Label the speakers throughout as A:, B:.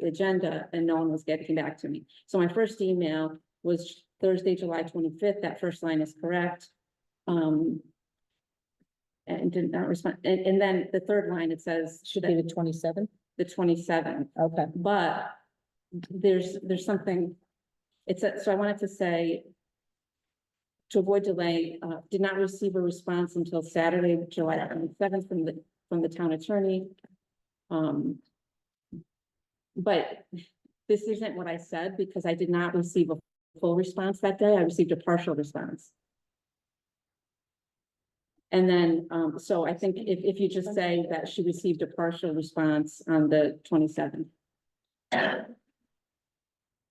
A: the agenda and no one was getting back to me. So my first email was Thursday, July twenty-fifth. That first line is correct. Um. And did not respond. And, and then the third line, it says.
B: Should be the twenty-seven,
A: The twenty-seventh,
B: okay.
A: but there's, there's something. It's, a- so I wanted to say. To avoid delay, uh, did not receive a response until Saturday, July twenty-seventh from the, from the town attorney. Um. But this isn't what I said because I did not receive a full response that day. I received a partial response. And then, um, so I think if, if you just say that she received a partial response on the twenty-seventh.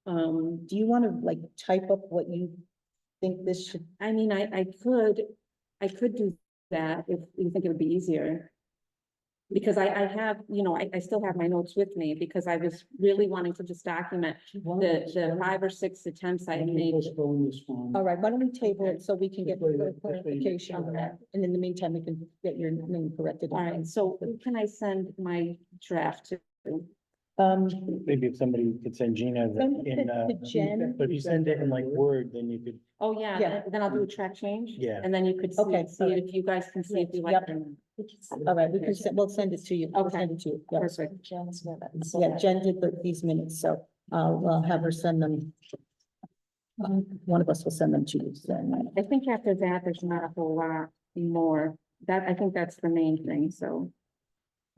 A: Um,
B: Do you want to like type up what you think this should,
A: I mean, I, I could, I could do that if you think it would be easier. Because I, I have, you know, I, I still have my notes with me because I was really wanting to just document the, the five or six attempts I made.
C: Postpone this one.
B: all right, why don't we table it so we can get
C: Before you-
B: further
C: before you-
B: clarification on that? And in the meantime, we can get your name corrected.
A: All right, so who can I send my draft to?
B: Um,
D: Maybe if somebody could send Gina the-
B: Send it
D: in,
B: to-
D: uh,
B: to Jen.
D: but if you send it in like Word, then you could,
A: Oh, yeah,
B: Yeah.
A: then- then I'll do a track change.
D: Yeah.
A: And then you could
B: Okay,
A: see, see
B: alright.
A: if you guys can see if you like
B: Yep.
A: them.
B: all right, we can, se- we'll send it to you. We'll
A: Okay.
B: send it to you. yeah.
A: Perfect.
B: Yeah, Jen did the- these minutes, so I'll, I'll have her send them. Um, One of us will send them to you. so.
A: I think after that, there's not a whole lot more. That, I think that's the main thing, so.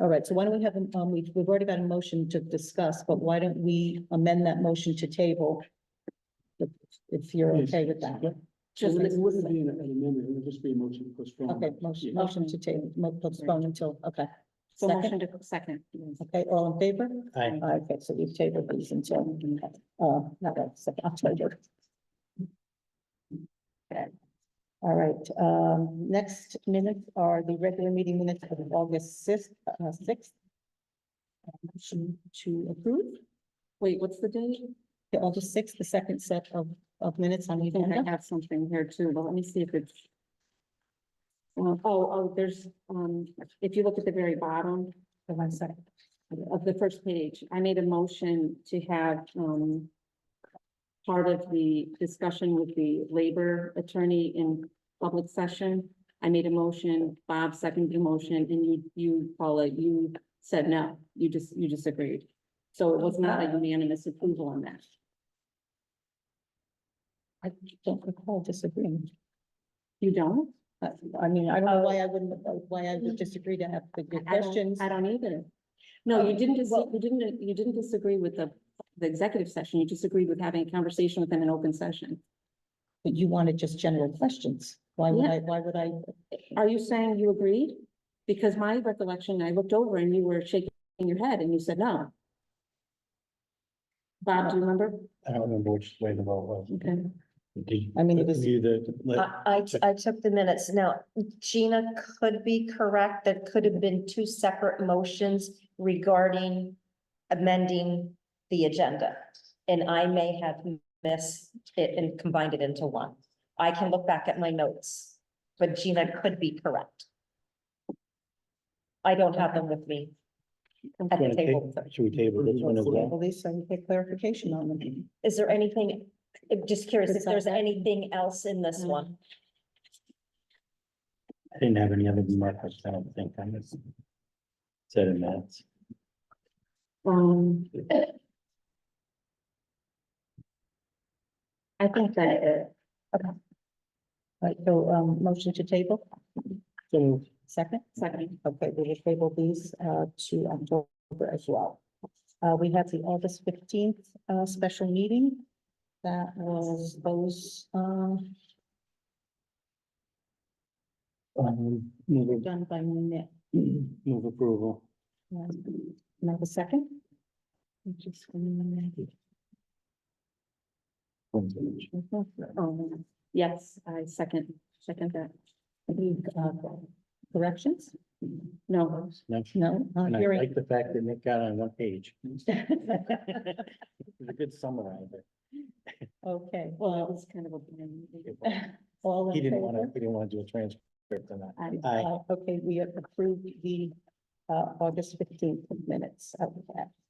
B: All right, so why don't we have, an- um, we've, we've already got a motion to discuss, but why don't we amend that motion to table? If, if you're okay with that.
A: Just,
C: It wouldn't be an an amendment, it would just be a motion to postpone.
B: Okay, motion, motion to table, mo- postpone until, okay,
A: so
B: second.
A: motion to second.
B: okay, all in favor?
D: I,
B: All right, Okay, so we've tabled these until, uh, not that second, October. Okay. All right, um, next minutes are the regular meeting minutes of August sixth, uh, sixth. Motion to approve.
A: Wait, what's the date?
B: the August sixth, the second set of, of minutes on the
A: I think I
B: agenda.
A: have something here too, but let me see if it's. Well, oh, oh, there's, um, if you look at the very bottom
B: Hold on a second.
A: of the first page, I made a motion to have, um. Part of the discussion with the labor attorney in public session. I made a motion, Bob seconded the motion, and you, you, Paula, you said no, you just, you disagreed. So it was not a unanimous approval on that.
B: I don't recall disagreeing.
A: You don't?
B: I, I mean, I don't know why I wouldn't, uh, why I would disagree to have the good
A: I don't-
B: questions.
A: I don't either. No, you didn't, dis-
B: Well-
A: you didn't, you didn't disagree with the, the executive session. You disagreed with having a conversation within an open session.
B: But you wanted just general questions. Why would
A: Yeah.
B: I, why would I?
A: Are you saying you agreed? Because my recollection, I looked over and you were shaking your head and you said no. Bob, do you remember?
D: I don't remember which way the vote was.
A: Okay.
D: Did
B: I mean, it was-
D: you the, like,
E: I, I, I took the minutes. Now, Gina could be correct. There could have been two separate motions regarding amending the agenda. And I may have missed it and combined it into one. I can look back at my notes, but Gina could be correct. I don't have them with me at
D: wanna
E: the table.
D: ta- should we table this one as well?
B: Well, Lisa, you get clarification on them.
E: Is there anything, I'm just curious if there's anything else in this one?
D: I didn't have any other remarks, I don't think, I just said in minutes.
A: Um. I think that, uh,
B: All right, so, um, motion to table,
D: So
B: second?
A: second,
B: Okay, we will table these, uh, to October as well. Uh, we have the August fifteenth, uh, special meeting. That was those, uh,
D: um, move,
B: done by Nick.
D: move approval.
B: Um, Number second? I'm just gonna-
A: um, yes, I second, second that.
B: Any, uh, Corrections?
A: No,
D: No,
B: No, not
D: And I
B: hearing.
D: like the fact that Nick got on one page. It was a good summarizer.
B: Okay,
A: well, it
B: well,
A: was kind of a. blend.
B: all
D: He
B: in
D: didn't want to,
B: favor?
D: he didn't want to do a transcript on that.
A: I-
D: Aye.
B: Uh, Okay, we have approved the, uh, August fifteenth minutes. Okay.